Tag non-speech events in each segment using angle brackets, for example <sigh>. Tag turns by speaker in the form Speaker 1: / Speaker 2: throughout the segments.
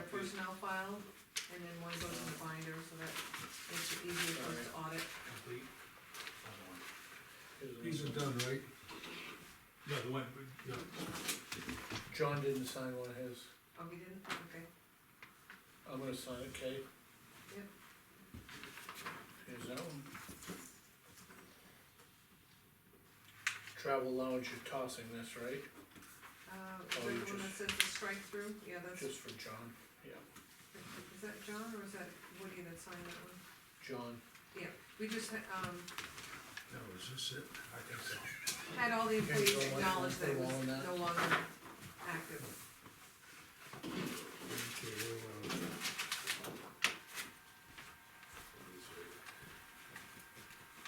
Speaker 1: personnel file, and then one goes in the binder, so that makes it easier for us to audit.
Speaker 2: complete.
Speaker 3: These are done, right?
Speaker 2: Yeah, the one, yeah,
Speaker 3: John didn't sign one of his,
Speaker 1: Oh, we didn't, okay.
Speaker 3: I'm gonna sign it, Kay.
Speaker 1: Yep.
Speaker 3: Here's that one. Travel lounge, you're tossing this, right?
Speaker 1: Uh,
Speaker 3: Oh, you
Speaker 1: is that the one that
Speaker 3: just-
Speaker 1: says the strike through? Yeah, that's,
Speaker 3: Just for John,
Speaker 1: is that John or is that Woody that signed that one?
Speaker 3: John.
Speaker 1: We just, had, um,
Speaker 2: that was just it, I think so.
Speaker 1: had all the
Speaker 3: You guys
Speaker 1: employees
Speaker 3: don't like
Speaker 1: acknowledge that it was
Speaker 3: going on that?
Speaker 1: no longer active.
Speaker 2: Okay, well,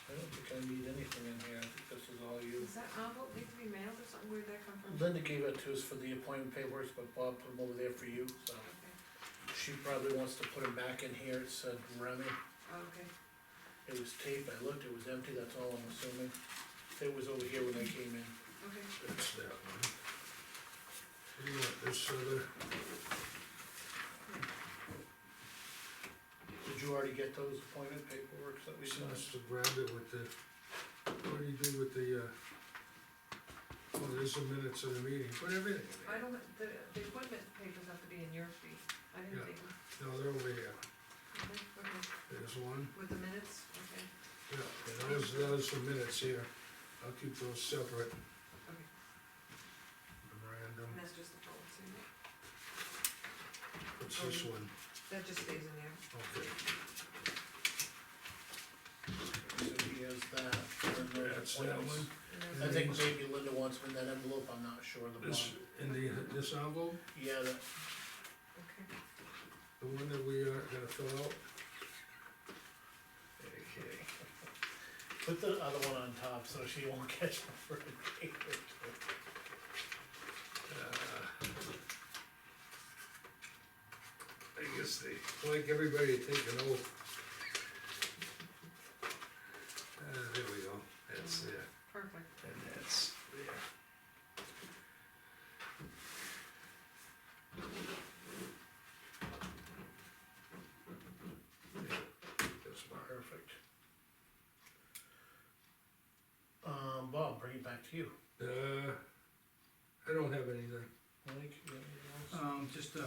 Speaker 3: I don't think I need anything in here, I think this is all you.
Speaker 1: Does that envelope need to be mailed or something? Where'd that come from?
Speaker 3: Linda gave it to us for the appointment papers, but Bob put them over there for you, so.
Speaker 1: Okay,
Speaker 3: She probably wants to put them back in here, it said Remy.
Speaker 1: okay,
Speaker 3: It was taped, I looked, it was empty, that's all I'm assuming. It was over here when I came in.
Speaker 1: okay.
Speaker 2: that's that one. uh, You want this other,
Speaker 3: Did you already get those appointment paperwork that we
Speaker 2: she
Speaker 3: sent?
Speaker 2: wants to grab it with the, what do you do with the, uh, well, there's the minutes of the meeting, put everything in
Speaker 1: I
Speaker 2: there.
Speaker 1: don't, the, the appointment papers have to be in your fee. I didn't
Speaker 2: Yeah.
Speaker 1: think,
Speaker 2: No, they're over here,
Speaker 1: okay, okay,
Speaker 2: there's one,
Speaker 1: with the minutes, okay,
Speaker 2: yeah, and those, those are minutes here, I'll keep those separate,
Speaker 1: okay.
Speaker 2: memorandum,
Speaker 1: And that's just the policy.
Speaker 2: what's this one,
Speaker 1: That just stays in there.
Speaker 2: okay.
Speaker 3: So he has that, and then the
Speaker 2: That's that
Speaker 3: appointments.
Speaker 2: one.
Speaker 1: And there's-
Speaker 3: I think maybe Linda wants them in that envelope, I'm not sure, the bond.
Speaker 2: This, in the, this envelope,
Speaker 3: Yeah, that,
Speaker 1: Okay,
Speaker 2: the one that we are gonna fill out,
Speaker 3: okay. Put the other one on top, so she won't catch them for a day or two.
Speaker 2: uh, I guess they, like everybody, to take an oath. Uh, there we go, that's there,
Speaker 1: perfect.
Speaker 2: and that's there. Yeah, That's mine.
Speaker 3: Perfect. Um, Bob, bring it back to you.
Speaker 2: Uh, I don't have anything.
Speaker 3: Mike, you got anything else?
Speaker 4: Um, just, uh,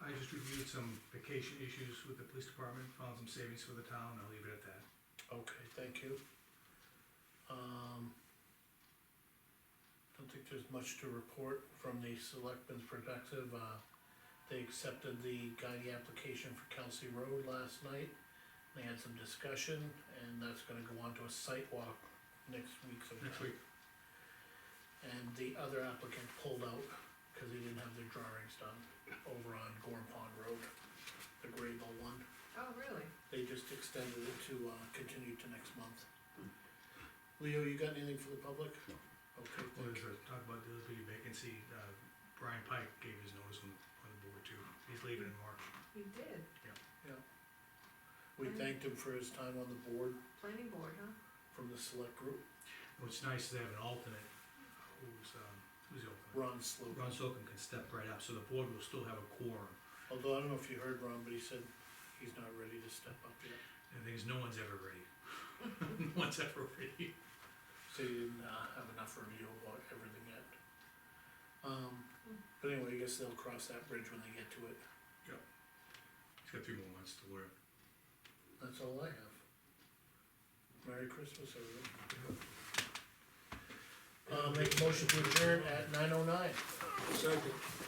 Speaker 4: I just reviewed some vacation issues with the police department, found some savings for the town, I'll leave it at that.
Speaker 3: Okay, thank you. Um, don't think there's much to report from the selectmen's perspective, uh, they accepted the guiding application for Kelsey Road last night. They had some discussion, and that's gonna go on to a site walk next week sometime.
Speaker 4: Next week,
Speaker 3: And the other applicant pulled out, cause he didn't have their drawings done, over on Gorm Pond Road, the Grable one.
Speaker 1: Oh, really?
Speaker 3: They just extended it to, uh, continue to next month. Leo, you got anything for the public? No. Okay,
Speaker 4: Well,
Speaker 3: thank
Speaker 4: there's
Speaker 3: you.
Speaker 4: a- talk about the other vacancy, uh, Brian Pike gave his notice on, on the board too, he's leaving in March.
Speaker 1: You did.
Speaker 3: We thanked him for his time on the board
Speaker 1: Planning board, huh?
Speaker 3: from the select group,
Speaker 4: What's nice, is they have an alternate, who's, um, who's the alternate?
Speaker 3: Ron Slogan.
Speaker 4: Ron Sokin can step right up, so the board will still have a quorum,
Speaker 3: Although I don't know if you heard Ron, but he said he's not ready to step up yet.
Speaker 4: and the thing is, no one's ever ready. <laughs> No one's ever ready.
Speaker 3: So he didn't, uh, have enough review about everything yet. Um, but anyway, I guess they'll cross that bridge when they get to it.
Speaker 4: He's got three more months to learn.
Speaker 3: That's all I have. Merry Christmas, everyone. Uh, make a motion to adjourn at nine oh nine.
Speaker 2: Second.